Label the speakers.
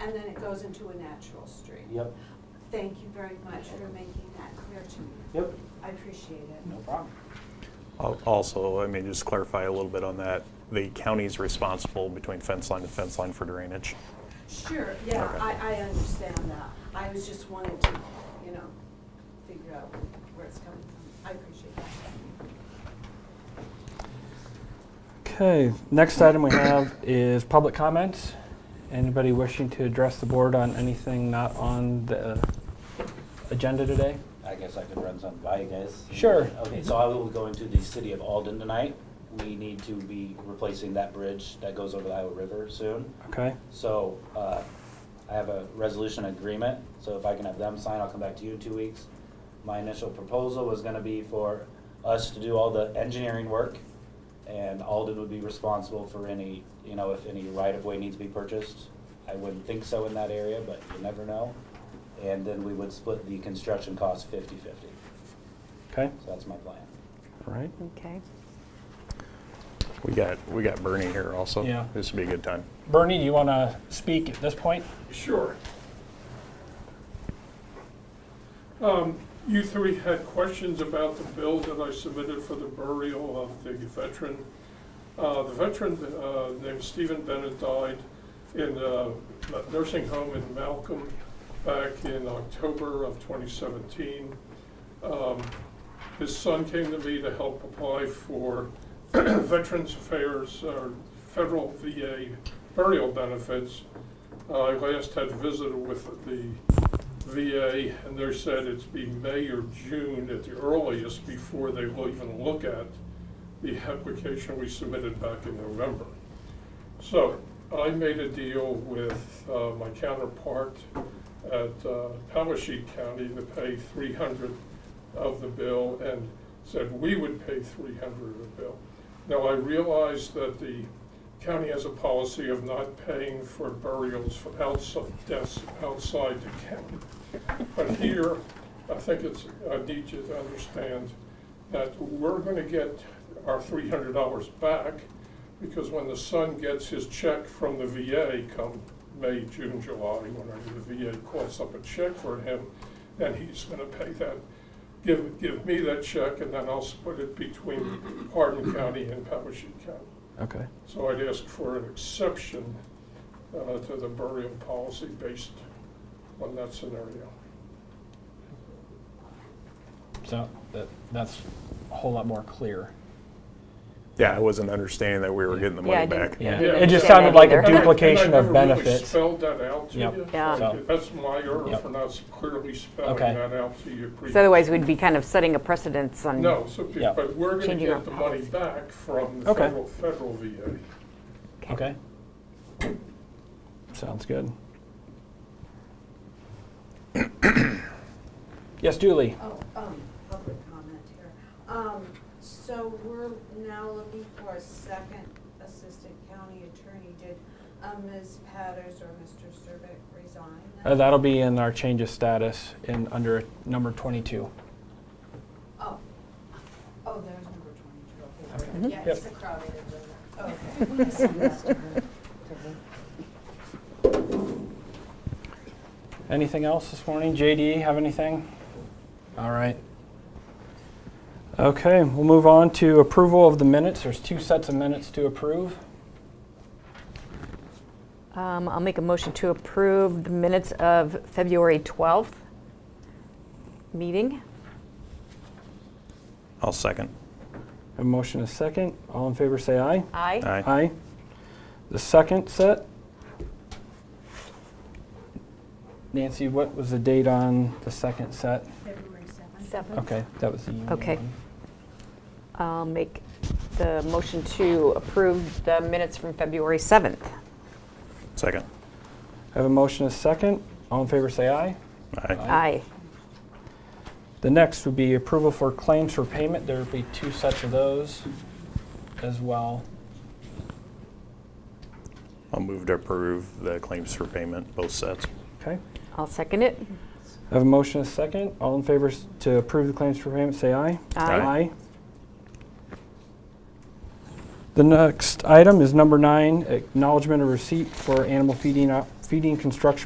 Speaker 1: and then it goes into a natural street.
Speaker 2: Yep,
Speaker 1: Thank you very much for making that clear to me.
Speaker 2: yep,
Speaker 1: I appreciate it.
Speaker 2: no problem.
Speaker 3: Al- Also, I mean, just clarify a little bit on that. The county's responsible between fence line and fence line for drainage.
Speaker 1: Sure, yeah,
Speaker 3: Okay.
Speaker 1: I, I understand that. I was just wanting to, you know, figure out where it's coming from. I appreciate that.
Speaker 4: Okay, next item we have is public comments. Anybody wishing to address the board on anything not on the agenda today?
Speaker 2: I guess I could run something by you guys.
Speaker 4: Sure.
Speaker 2: Okay, so I will go into the city of Alden tonight. We need to be replacing that bridge that goes over the Iowa River soon.
Speaker 4: Okay,
Speaker 2: So, uh, I have a resolution agreement, so if I can have them sign, I'll come back to you in two weeks. My initial proposal was gonna be for us to do all the engineering work, and Alden would be responsible for any, you know, if any right-of-way needs to be purchased. I wouldn't think so in that area, but you never know. And then we would split the construction cost fifty-fifty,
Speaker 4: okay,
Speaker 2: so that's my plan.
Speaker 4: all right.
Speaker 5: Okay.
Speaker 3: We got, we got Bernie here also.
Speaker 4: Yeah.
Speaker 3: This would be a good time.
Speaker 4: Bernie, do you want to speak at this point?
Speaker 6: Sure. Um, You three had questions about the bill that I submitted for the burial of the veteran. Uh, The veteran uh, named Stephen Bennett died in uh, a nursing home in Malcolm back in October of 2017. Um, His son came to me to help apply for Veterans Affairs, or federal VA burial benefits. Uh, I last had visited with the VA, and they said it's be May or June at the earliest before they will even look at the application we submitted back in November. So I made a deal with uh, my counterpart at uh, Powashik County to pay three hundred of the bill and said we would pay three hundred of the bill. Now, I realize that the county has a policy of not paying for burials for outside, deaths outside the county. But here, I think it's, I need you to understand that we're gonna get our three hundred dollars back because when the son gets his check from the VA come May, June, July, whenever the VA calls up a check for him, then he's gonna pay that. Give, give me that check and then I'll split it between Hardin County and Powashik County.
Speaker 4: Okay.
Speaker 6: So I'd ask for an exception uh, to the burial policy based on that scenario.
Speaker 4: So that, that's a whole lot more clear.
Speaker 3: Yeah, I wasn't understanding that we were getting the
Speaker 5: Yeah, I
Speaker 3: money
Speaker 5: didn't-
Speaker 3: back.
Speaker 4: Yeah,
Speaker 5: didn't
Speaker 4: it just
Speaker 5: understand
Speaker 4: sounded
Speaker 5: that
Speaker 4: like a
Speaker 5: either.
Speaker 6: And I- and I
Speaker 4: duplication of
Speaker 6: never really
Speaker 4: benefits.
Speaker 6: spelled that out to
Speaker 4: Yep.
Speaker 6: you.
Speaker 5: Yeah.
Speaker 6: So That's my error
Speaker 4: Yep.
Speaker 6: for not clearly spelling
Speaker 4: Okay.
Speaker 6: that out to you. pre-
Speaker 5: So otherwise, we'd be kind of setting a precedence on.
Speaker 6: No, so, be-
Speaker 4: Yep.
Speaker 6: but we're going to
Speaker 5: Changing our
Speaker 6: get the money
Speaker 5: policy.
Speaker 6: back from the
Speaker 4: Okay.
Speaker 6: federal, federal VA.
Speaker 4: Okay. Sounds good. Yes, Julie?
Speaker 1: Oh, um, public comment here. Um, so we're now looking for a second assistant county attorney. Did, um, Ms. Patters or Mr. Cervick resign?
Speaker 4: Uh, That'll be in our change of status in, under number 22.
Speaker 1: Oh, oh, there's number twenty-two. Okay. Yeah,
Speaker 4: Yep.
Speaker 1: it's a crowded room. Okay.
Speaker 4: Anything else this morning? JD, have anything? All right. Okay, we'll move on to approval of the minutes. There's two sets of minutes to approve.
Speaker 5: Um, I'll make a motion to approve the minutes of February 12th meeting.
Speaker 3: I'll second.
Speaker 4: A motion is second. All in favor say aye.
Speaker 5: Aye.
Speaker 3: Aye.
Speaker 4: The second set. Nancy, what was the date on the second set?
Speaker 1: February seventh.
Speaker 5: Seven.
Speaker 4: Okay, that was the union
Speaker 5: Okay.
Speaker 4: one.
Speaker 5: I'll make the motion to approve the minutes from February 7th.
Speaker 3: Second.
Speaker 4: I have a motion is second. All in favor say aye.
Speaker 3: Aye.
Speaker 5: Aye.
Speaker 4: The next would be approval for claims for payment. There would be two sets of those as well.
Speaker 3: I'll move to approve the claims for payment, both sets.
Speaker 4: Okay.
Speaker 5: I'll second it.
Speaker 4: I have a motion and a second. All in favor s- to approve the claims for payment, say aye.
Speaker 5: Aye.
Speaker 4: The next item is number nine, acknowledgement of receipt for animal feeding, op- feeding construction